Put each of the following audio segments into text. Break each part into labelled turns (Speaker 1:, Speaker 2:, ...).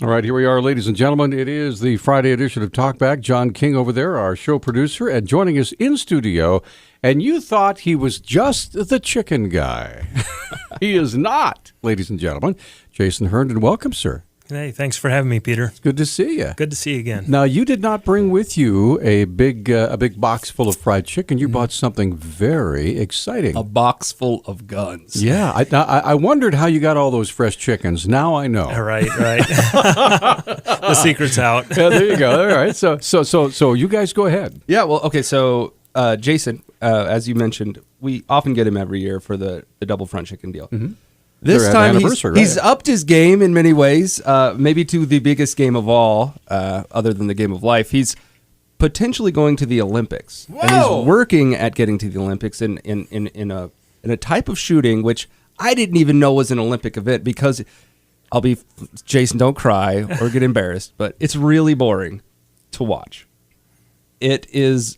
Speaker 1: All right, here we are, ladies and gentlemen. It is the Friday edition of Talkback. John King over there, our show producer, and joining us in studio. And you thought he was just the chicken guy. he is not, ladies and gentlemen. Jason Herndon, welcome, sir.
Speaker 2: Hey, thanks for having me, Peter.
Speaker 1: Good to see you.
Speaker 2: Good to see you again.
Speaker 1: Now, you did not bring with you a big uh, a big box full of fried chicken. You bought something very exciting.
Speaker 3: a box full of guns.
Speaker 1: yeah, I, I I wondered how you got all those fresh chickens. Now I know.
Speaker 2: All right, right. the secret's out.
Speaker 1: Yeah, there you go. All right. So so so so you guys go ahead.
Speaker 3: Yeah. Well, okay. So, uh, Jason, uh, as you mentioned, we often get him every year for the, the double front chicken deal. This
Speaker 1: Mm-hmm. They're at
Speaker 3: time, he's,
Speaker 1: anniversary, right?
Speaker 3: he's upped his game in many ways, uh, maybe to the biggest game of all, uh, other than the game of life. He's potentially going to the Olympics. And
Speaker 1: Whoa!
Speaker 3: he's working at getting to the Olympics in, in, in, in, a, in a type of shooting which I didn't even know was an Olympic event because I'll be, Jason, don't cry or get embarrassed, but it's really boring to watch. It is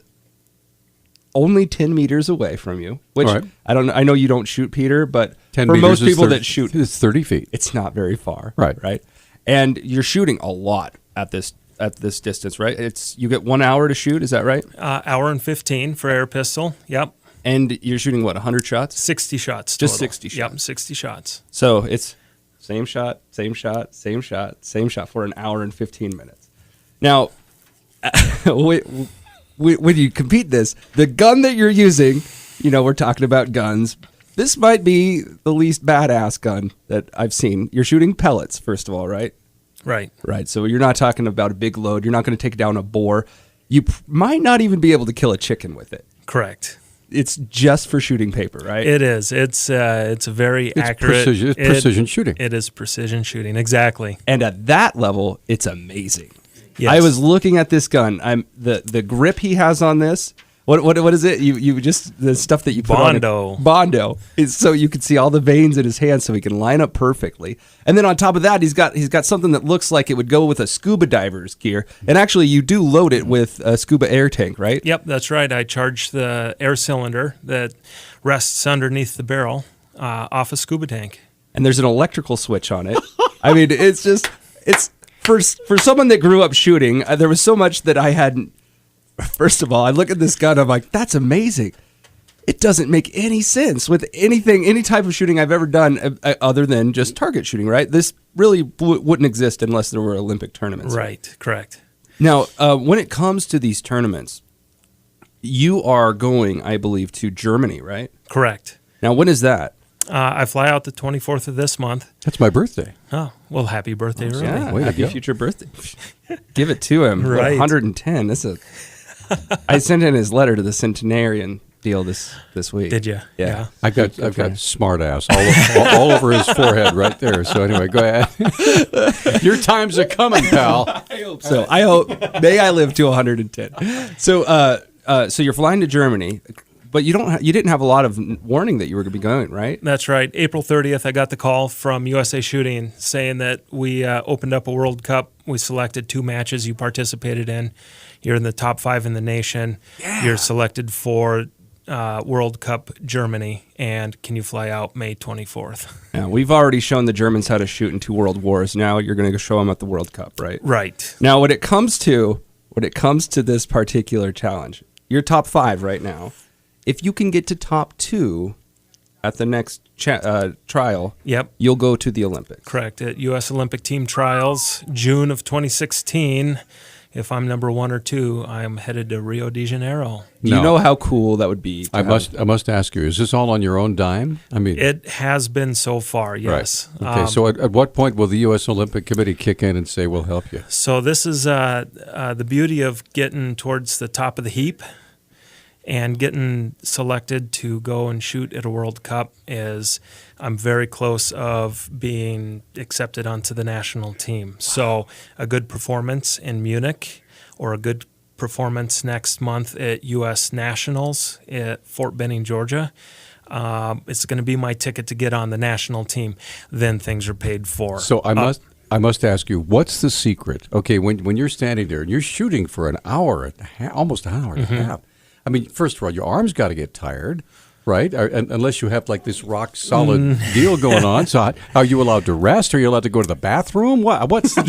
Speaker 3: only 10 meters away from you, which
Speaker 1: All right.
Speaker 3: I don't I know you don't shoot Peter, but
Speaker 1: 10
Speaker 3: for
Speaker 1: meters
Speaker 3: most
Speaker 1: is
Speaker 3: people
Speaker 1: 30
Speaker 3: that shoot,
Speaker 1: It's 30 feet.
Speaker 3: it's not very far.
Speaker 1: Right.
Speaker 3: Right. And you're shooting a lot at this at this distance, right? It's you get one hour to shoot, is that right?
Speaker 2: Uh, hour and 15 for air pistol. Yep.
Speaker 3: And you're shooting what, hundred shots?
Speaker 2: 60 shots.
Speaker 3: Just
Speaker 2: total.
Speaker 3: 60
Speaker 2: Yep, 60 shots.
Speaker 3: So it's same shot, same shot, same shot, same shot for an hour and fifteen minutes. Now, we, we, when you compete this, the gun that you're using, you know, we're talking about guns. This might be the least badass gun that I've seen. You're shooting pellets, first of all, right?
Speaker 2: Right.
Speaker 3: Right. So you're not talking about a big load. You're not going to take down a boar. You p- might not even be able to kill a chicken with it.
Speaker 2: Correct.
Speaker 3: It's just for shooting paper, right?
Speaker 2: It is. It's uh, it's a very
Speaker 1: It's
Speaker 2: accurate.
Speaker 1: precision- it's
Speaker 2: it-
Speaker 1: precision shooting.
Speaker 2: It is precision shooting. Exactly.
Speaker 3: and at that level, it's amazing.
Speaker 2: Yes.
Speaker 3: I was looking at this gun. I'm the the grip he has on this. What what what is it? You you just the stuff that you put
Speaker 2: Bondo.
Speaker 3: on it, Bondo is so you can see all the veins in his hand, so he can line up perfectly. And then on top of that, he's got he's got something that looks like it would go with a scuba diver's gear. And actually, you do load it with a scuba air tank, right?
Speaker 2: Yep, that's right. I charge the air cylinder that rests underneath the barrel uh, off a scuba tank.
Speaker 3: and there's an electrical switch on it. I mean, it's just it's for for someone that grew up shooting. Uh, there was so much that I hadn't. First of all, I look at this gun. I'm like, that's amazing. It doesn't make any sense with anything, any type of shooting I've ever done, uh, uh, other than just target shooting. Right? This really w- wouldn't exist unless there were Olympic tournaments.
Speaker 2: Right. Correct.
Speaker 3: Now, uh, when it comes to these tournaments, you are going, I believe, to Germany, right?
Speaker 2: Correct.
Speaker 3: Now, when is that?
Speaker 2: Uh, I fly out the 24th of this month.
Speaker 1: That's my birthday.
Speaker 2: Oh, well, happy birthday, really.
Speaker 3: Yeah,
Speaker 1: Way to
Speaker 3: happy
Speaker 1: go.
Speaker 3: future birthday. Give it to him.
Speaker 2: Right.
Speaker 3: 110. This is. I sent in his letter to the centenarian deal this this week.
Speaker 2: Did you?
Speaker 3: Yeah.
Speaker 1: I've got I've got smart ass all, o- all, all over his forehead right there. So anyway, go ahead. Your time's a coming, pal.
Speaker 3: So I hope may I live to 110. So uh, uh, so you're flying to Germany, but you don't ha- you didn't have a lot of n- warning that you were going to be going, right?
Speaker 2: That's right. April 30th, I got the call from USA Shooting saying that we uh, opened up a World Cup. We selected two matches you participated in. You're in the top five in the nation. You're selected for uh, World Cup Germany. And can you fly out May 24th?
Speaker 3: Now, we've already shown the Germans how to shoot in two world wars. Now you're going to show them at the World Cup, right?
Speaker 2: Right.
Speaker 3: Now, when it comes to when it comes to this particular challenge, you're top five right now. If you can get to top two at the next cha- uh, trial,
Speaker 2: Yep.
Speaker 3: you'll go to the Olympics.
Speaker 2: Correct. At U.S. Olympic Team Trials, June of 2016. If I'm number one or two, I'm headed to Rio de Janeiro.
Speaker 3: Do
Speaker 1: No.
Speaker 3: You know how cool that would be. to
Speaker 1: I
Speaker 3: have-
Speaker 1: must I must ask you: Is this all on your own dime? I mean,
Speaker 2: It has been so far,
Speaker 1: right.
Speaker 2: yes.
Speaker 1: Okay.
Speaker 2: Um,
Speaker 1: so at, at what point will the U.S. Olympic Committee kick in and say we'll help you?
Speaker 2: So this is uh, uh, the beauty of getting towards the top of the heap and getting selected to go and shoot at a World Cup is I'm very close of being accepted onto the national team. So a good performance in Munich or a good performance next month at U.S. Nationals at Fort Benning, Georgia. Um, it's going to be my ticket to get on the national team. Then things are paid for.
Speaker 1: So I
Speaker 2: Uh,
Speaker 1: must I must ask you, what's the secret? Okay, when when you're standing there and you're shooting for an hour and a half, almost an hour and
Speaker 2: Mm-hmm.
Speaker 1: a half. I mean, first of all, your arms got to get tired, right? Or, un- unless you have like this
Speaker 2: Mm.
Speaker 1: rock solid deal going on. So how- are you allowed to rest? Are you allowed to go to the bathroom? What what's the